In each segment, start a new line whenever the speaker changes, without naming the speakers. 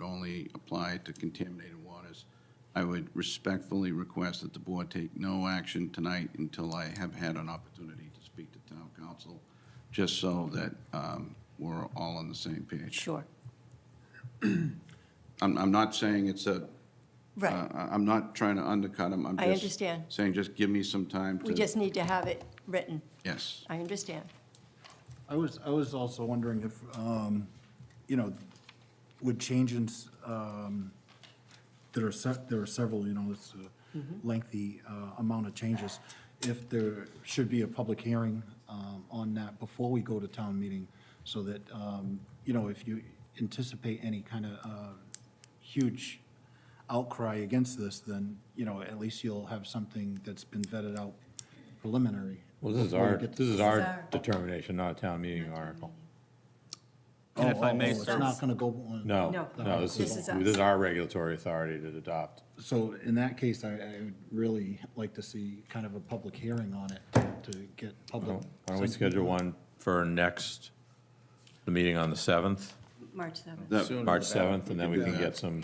currently applied to contaminated waters. I would respectfully request that the board take no action tonight until I have had an opportunity to speak to town council, just so that um, we're all on the same page.
Sure,
I'm, I'm not saying it's a, uh,
right.
I- I'm not trying to undercut him. I'm
I
just
understand.
Saying, just give me some time to.
We just need to have it written.
Yes.
I understand.
I was, I was also wondering if, um, you know, would changes, um, there are se- there are several, you know, it's a lengthy, uh, amount of changes. If there should be a public hearing, um, on that before we go to town meeting, so that, um, you know, if you anticipate any kind of, uh, huge outcry against this, then, you know, at least you'll have something that's been vetted out preliminary.
Well, this is
before we
our,
get to
this is
our-
our determination, not a town meeting article.
And if I
Oh,
may,
oh, oh, It's
sir-
not gonna go on.
No,
No.
no, this
This
is,
is us.
this is our regulatory authority to adopt.
So in that case, I, I would really like to see kind of a public hearing on it to get public.
Why don't we schedule one for next, the meeting on the 7th,
March 7th.
That-
Sooner the
March
better.
7th, and then we
do
can
that.
get some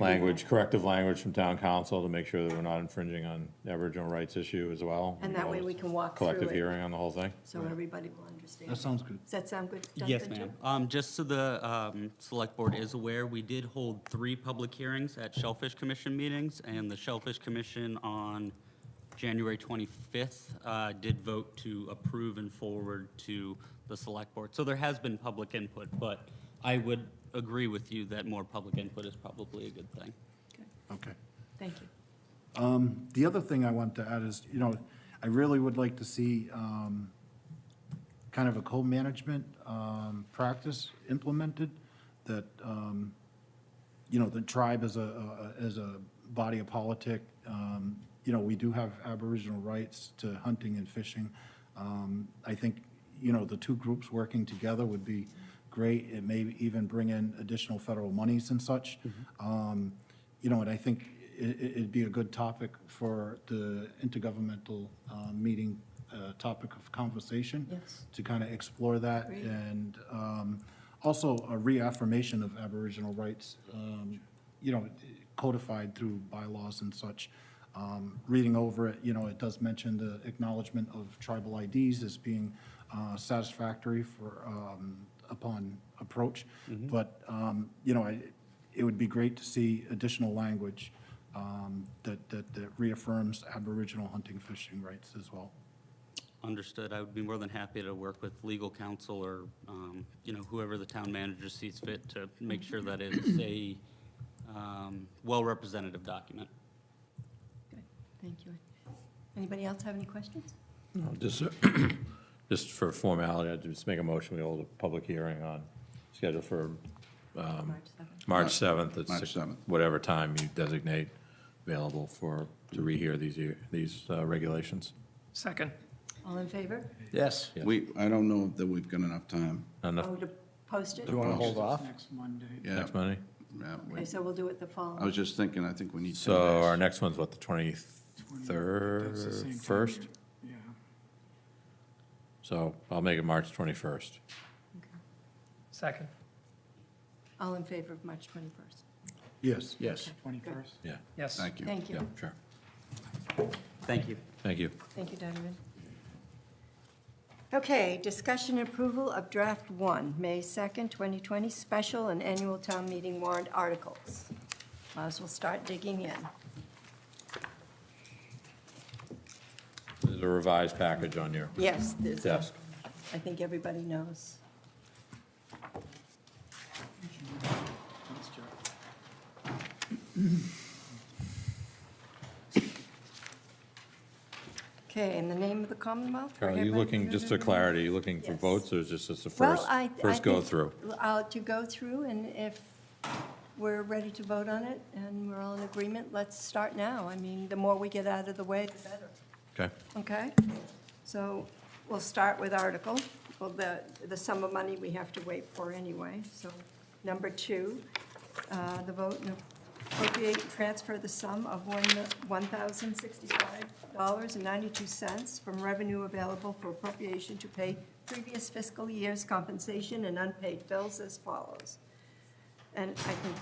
language, corrective language from town council to make sure that we're not infringing on the Aboriginal rights issue as well.
And that way we can walk through
Collective
it.
hearing on the whole thing.
So everybody will understand.
That sounds good.
Does that sound good?
Yes,
Duncan, too?
ma'am. Um, Just so the um, Select Board is aware, we did hold three public hearings at Shellfish Commission meetings, and the Shellfish Commission on January 25th uh, did vote to approve and forward to the Select Board. So there has been public input, but I would agree with you that more public input is probably a good thing.
Okay,
Okay.
Thank you.
The other thing I want to add is, you know, I really would like to see, um, kind of a co-management, um, practice implemented that, um, you know, the tribe as a, a- as a body of politic, um, you know, we do have Aboriginal rights to hunting and fishing. Um, I think, you know, the two groups working together would be great. It may even bring in additional federal monies and such. Um, You know, and I think i- i- it'd be a good topic for the intergovernmental uh, meeting, uh, topic of conversation.
Yes.
To kind of explore that
Great.
and um, also a reaffirmation of Aboriginal rights, um, you know, codified through bylaws and such. Um, Reading over it, you know, it does mention the acknowledgement of tribal IDs as being uh, satisfactory for, um, upon approach. But, um, you know, I- it would be great to see additional language um, that that that reaffirms Aboriginal hunting, fishing rights as well.
Understood. I would be more than happy to work with legal counsel or, um, you know, whoever the town manager sees fit to make sure that it's a um, well-representative document.
Good, thank you. Anybody else have any questions?
Just, uh, just for formality, I'd just make a motion, we hold a public hearing on, schedule for
Um,
March 7th.
March 7th. at
March
six-
7th.
Whatever time you designate available for, to rehear these, ear- these uh, regulations.
Second.
All in favor?
Yes.
Yeah.
We, I don't know that we've got enough time.
Enough
Oh, to post it?
Do you want to hold off?
Yeah,
next Monday?
yeah, we-
Okay, so we'll do it the
I
following.
was just thinking, I think we need.
So
to-
our next one's what, the 23rd, 1st?
Yeah.
So I'll make it March 21st.
Second.
All in favor of March 21st?
Yes.
Yes.
Good.
Yeah,
Yes.
Thank you.
Thank
yeah,
you.
sure.
Thank you.
Thank you.
Thank you, Donovan. Okay, discussion and approval of Draft 1, May 2nd, 2020, special and annual town meeting warrant articles. Might as well start digging in.
There's a revised package on your
Yes, there's, a-
desk.
I think everybody knows. Okay, in the name of the Commonwealth?
Carol, are you looking, just for clarity, you looking for
Yes.
votes or is this just the
Well,
first,
I- I
first
think-
go-through?
Uh, To go through, and if we're ready to vote on it and we're all in agreement, let's start now. I mean, the more we get out of the way, the better.
Okay,
Okay? So we'll start with article, well, the, the sum of money we have to wait for anyway. So number two, uh, the vote and appropriate and transfer the sum of one one $1,065.92 from revenue available for appropriation to pay previous fiscal year's compensation and unpaid bills as follows. And I think